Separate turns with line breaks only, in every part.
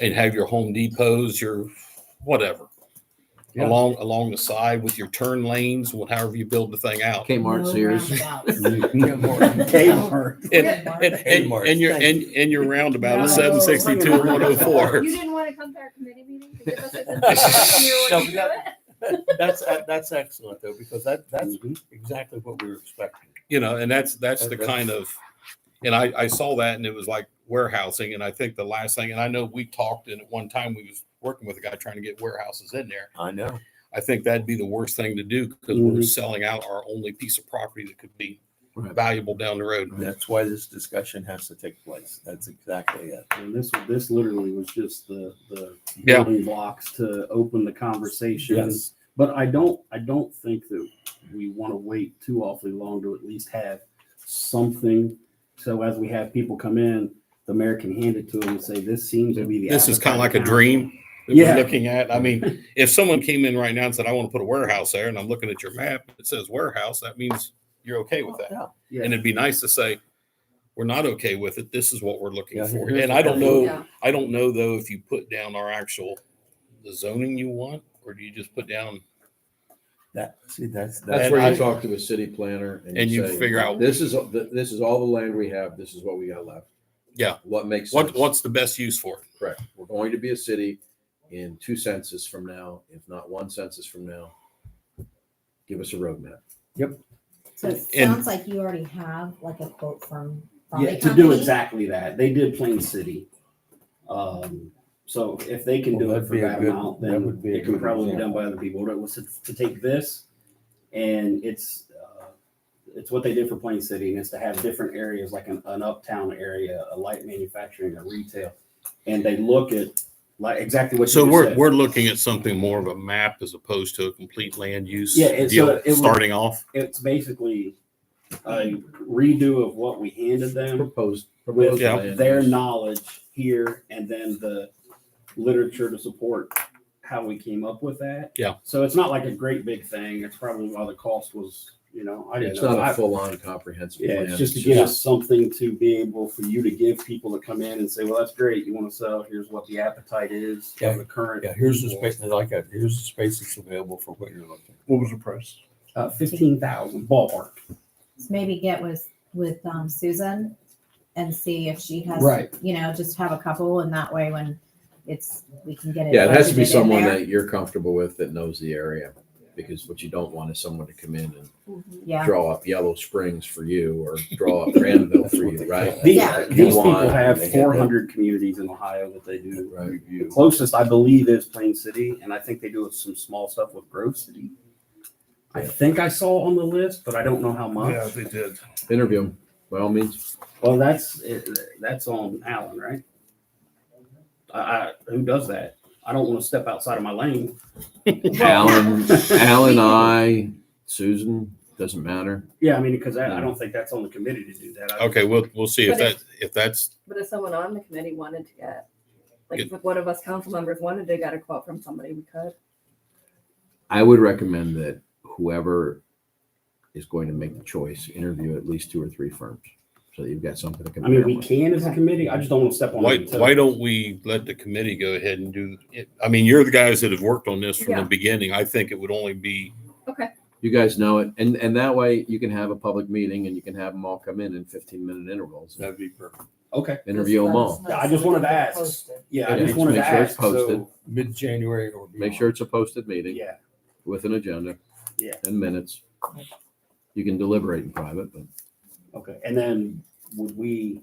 and have your Home Depots, your whatever.
Yeah.
Along along the side with your turn lanes, wh- however you build the thing out.
No
Kmart, Sears.
roundabouts.
Kmart.
And,
Good, Mark.
and, and,
Kmart.
and your and, and your roundabout is
No.
seven sixty two and one oh four.
You didn't want to come to our committee meeting to give us this information? You were like,
No, we That's, that's excellent though, because that, that's exactly what we were expecting.
you know and that's that's the
That's-
kind of and i i saw that and it was like warehousing and i think the last thing and i know we talked and at one time we was working with a guy trying to get warehouses in there
I know.
i think that'd be the worst thing to do because we're selling out our only piece of property that could be
Right.
valuable down the road
That's why this discussion has to take place. That's exactly it.
And this, this literally was just the, the
Yeah.
building blocks to open the conversation.
Yes.
But I don't, I don't think that we want to wait too awfully long to at least have something. So as we have people come in, the mayor can hand it to them and say, this seems to be the.
this is kind of like a
appetite now."
dream that we're
Yeah.
looking at i mean if someone came in right now and said i want to put a warehouse there and i'm looking at your map it says warehouse that means you're okay with that
Yeah.
Yeah.
and it'd be nice to say we're not okay with it this is what we're looking
Yeah,
for
here's
and
what
i don't
that
know
Yeah.
I don't know though if you put down our actual the zoning you want, or do you just put down
That, see, that's,
That's
And
that's,
where
I-
you talk to a city planner and,
and you
say,
figure out
This is all- th- this is all the land we have. This is what we got left.
Yeah.
What makes
what
sense?
what's the best use for it?
correct? We're going to be a city in two census from now, if not one census from now. Give us a roadmap.
So it
And-
sounds like you already have like a quote from. from the
Yeah, to do
company.
exactly that. They did Plain City. Um, so if they can do
Well,
it
that'd
for
be a
that
good-
amount,
that
then
would be a
it can
good
probably be done by other people. What it was to, to take this and it's, uh, it's what they did for Plain City and it's to have different areas like an, an uptown area, a light manufacturing, a retail. And they look at like exactly what you
So
just
we're
said.
we're looking at something more of a map as opposed to a complete land use
Yeah, and so
deal
it would-
starting off.
It's basically a redo of what we handed them.
Proposed.
with
proposed
Yeah.
land
their
use.
knowledge here and then the literature to support how we came up with that.
Yeah.
So it's not like a great big thing. It's probably why the cost was, you know, I didn't
It's
know.
not
I-
a full-on comprehensive
Yeah,
plan.
it's just to give us something to be able for you to give people to come in and say, well, that's great. You want to sell, here's what the appetite is
Yeah.
of the current.
yeah, here's the space, like, that. here's the space that's available for what you're looking.
What was the price?
Uh, fifteen thousand ballpark.
So Maybe get with, with um, Susan and see if she has.
Right.
You know, just have a couple and that way when it's, we can get it.
Yeah, it has to
budgeted
be
in
someone
there.
that you're comfortable with that knows the area. Because what you don't want is someone to come in and
Yeah,
draw up Yellow Springs for you or draw up Granville for
That's
you,
what
right?
they
These,
Yeah.
these people
Why? They
have
get
four
that.
hundred communities in Ohio that they do
Right.
The
Review.
closest, I believe, is Plain City, and I think they do some small stuff with Grove City. I think I saw on the list, but I don't know how
Yeah,
much.
they did.
Interview them by all means.
Well, that's, it- that's on Allen, right? I, I, who does that? I don't want to step outside of my lane.
Alan, Alan, I, Susan, doesn't matter.
Yeah, I mean, because I, I don't think that's on the committee to do that. I-
Okay, we'll we'll see if
But
that
if-
if that's
But if someone on the committee wanted to get, like,
Good.
if one of us council members wanted to get a quote from somebody, we could.
I would recommend that whoever is going to make the choice, interview at least two or three firms. So that you've got something to
I mean,
compare
we
with.
can as a committee, I just don't want to step on.
why
it until-
why don't we let the committee go ahead and do it? I mean, you're the guys that have worked on this from
Yeah.
the beginning. I think it would only be
You guys know it. And, and that way you can have a public meeting and you can have them all come in in fifteen minute intervals.
That'd be perfect.
Okay,
Interview them all.
Yeah, I just wanted to ask. yeah, I
Yeah,
just wanted
make
to
sure it's
ask, so,
posted.
Mid-January or.
Make sure it's a posted meeting
yeah,
with an agenda.
Yeah.
And minutes. You can deliberate in private, but
okay. And then would we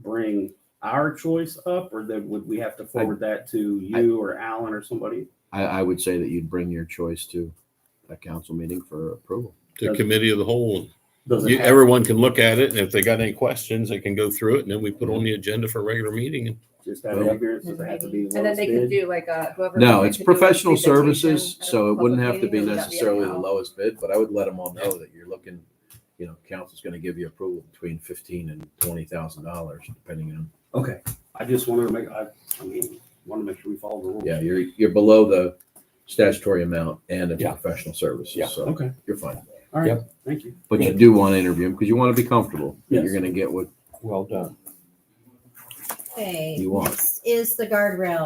bring our choice up, or then would we have to forward that to you or Alan or somebody?
I, I would say that you'd bring your choice to a council meeting for approval.
the
Does-
committee of the whole.
Does it
You,
have-
everyone can look at it, and if they got any questions, they can go through it, and then we put on the agenda for a regular meeting. And
just out of
Well-
ignorance, does it have to be the
And then
lowest
they
bid?
could do like a whoever.
No,
they
it's
could do a
professional
presentation
services,
at a
so it wouldn't
public
have to be
meeting, or would that
necessarily
a
the
no?
lowest bid, but I would let them all know that you're looking, you know, council's gonna give you approval between fifteen and twenty thousand dollars, depending on,
Okay, I just wanted to make, I, I mean, want to make sure we follow the rules.
yeah, you're, you're below the statutory amount and it's
Yeah.
professional
Yeah.
services, so
Okay,
you're fine.
all right,
Yep.
thank you.
But you do wanna interview them, because you wanna be comfortable, that you're
Yes.
gonna get what
Well done.
Okay,
you want.
next is the guardrail